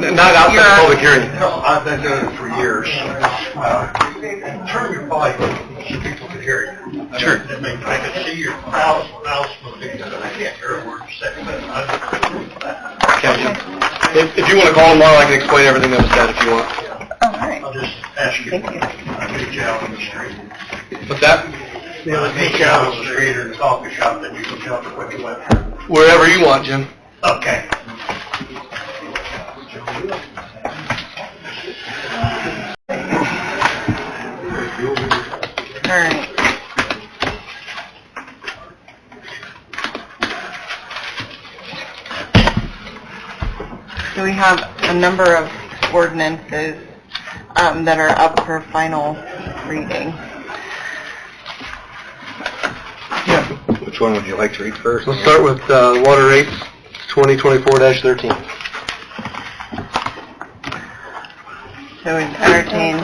Not outside the public hearing. No, I've been doing it for years. Uh, Turn your volume so people can hear you. I Sure. mean, I mean, I can see your mouth, mouth moving, but I can't hear a word you're saying, but I'm, If, if you want to call tomorrow, I can explain everything that was said if you want. All right. I'll just ask you. Thank you. I meet you out on the street. What's that? I meet you out on the street or the coffee shop, then you can tell me what you went through. Wherever you want, Jim. Okay. All right. So we have a number of ordinances um, that are up for final reading. Which one would you like to read first? Let's start with, uh, water rates, 2024-13. So we entertain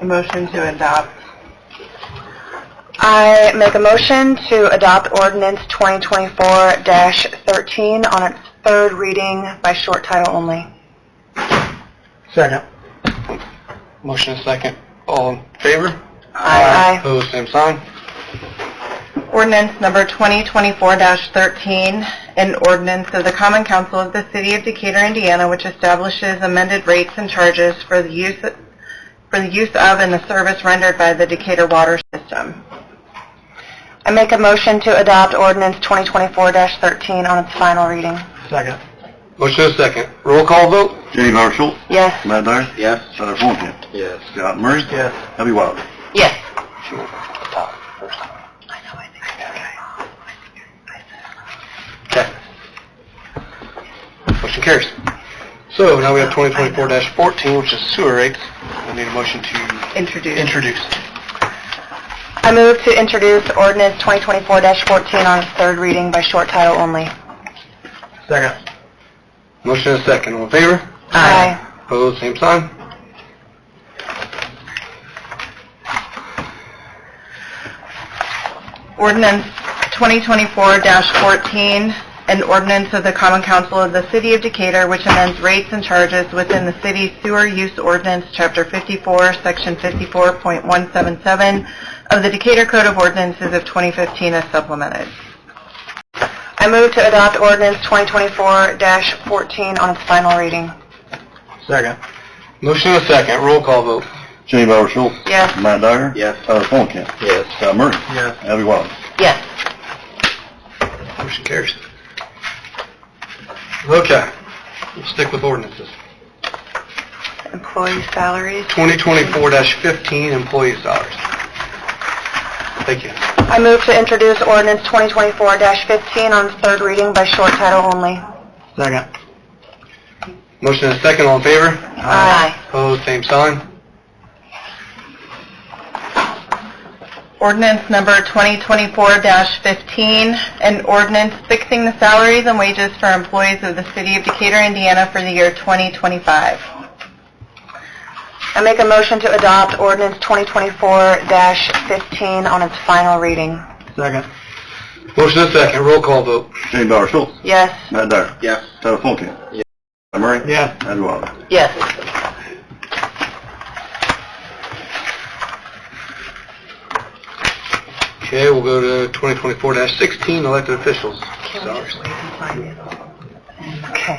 a motion to adopt. I make a motion to adopt ordinance 2024-13 on its third reading by short title only. Second. Motion is second. All in favor? Aye. Opposed, same sign. Ordinance number 2024-13, an ordinance of the Common Council of the City of Decatur, Indiana, which establishes amended rates and charges for the use, for the use of and the service rendered by the Decatur Water System. I make a motion to adopt ordinance 2024-13 on its final reading. Second. Motion is second. Roll call vote? Jenny Bauer Schultz, Yes. Matt Dyer, Yes. Tyler Fulham, Yes. Scott Murray. Yes. Abby Wilder. Yes. Okay. Motion carries. So now we have 2024-14, which is sewer rates. I need a motion to Introduced. introduce. I move to introduce ordinance 2024-14 on its third reading by short title only. Second. Motion is second. All in favor? Aye. Opposed, same sign. Ordinance 2024-14, an ordinance of the Common Council of the City of Decatur, which amends rates and charges within the city sewer use ordinance, Chapter 54, Section 54.177 of the Decatur Code of Ordinances of 2015 as supplemented. I move to adopt ordinance 2024-14 on its final reading. Second. Motion is second. Roll call vote. Jenny Bauer Schultz. Yes. Matt Dyer. Yes. Tyler Fulham. Yes. Scott Murray. Yes. Abby Wilder. Yes. Motion carries. Okay. We'll stick with ordinances. Employee salaries. 2024-15, employee salaries. Thank you. I move to introduce ordinance 2024-15 on its third reading by short title only. Second. Motion is second. All in favor? Aye. Opposed, same sign. Ordinance number 2024-15, an ordinance fixing the salaries and wages for employees of the City of Decatur, Indiana for the year 2025. I make a motion to adopt ordinance 2024-15 on its final reading. Second. Motion is second. Roll call vote. Jenny Bauer Schultz. Yes. Matt Dyer. Yes. Tyler Fulham. Yes. Scott Murray. Yes. Abby Wilder. Yes. Okay, we'll go to 2024-16, elected officials. Salaries. Okay.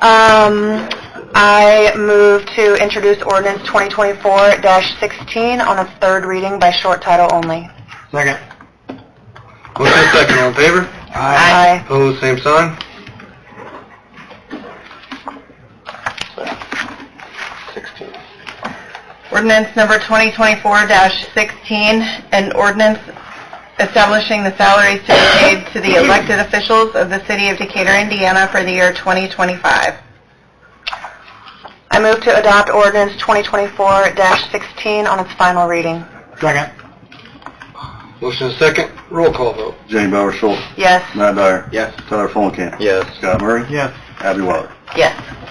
Um, I move to introduce ordinance 2024-16 on its third reading by short title only. Second. Motion is second. All in favor? Aye. Opposed, same sign. Sixteen. Ordinance number 2024-16, an ordinance establishing the salaries to be paid to the elected officials of the City of Decatur, Indiana for the year 2025. I move to adopt ordinance 2024-16 on its final reading. Second. Motion is second. Roll call vote. Jenny Bauer Schultz. Yes. Matt Dyer. Yes. Tyler Fulham. Yes. Scott Murray. Yes. Abby Wilder. Yes.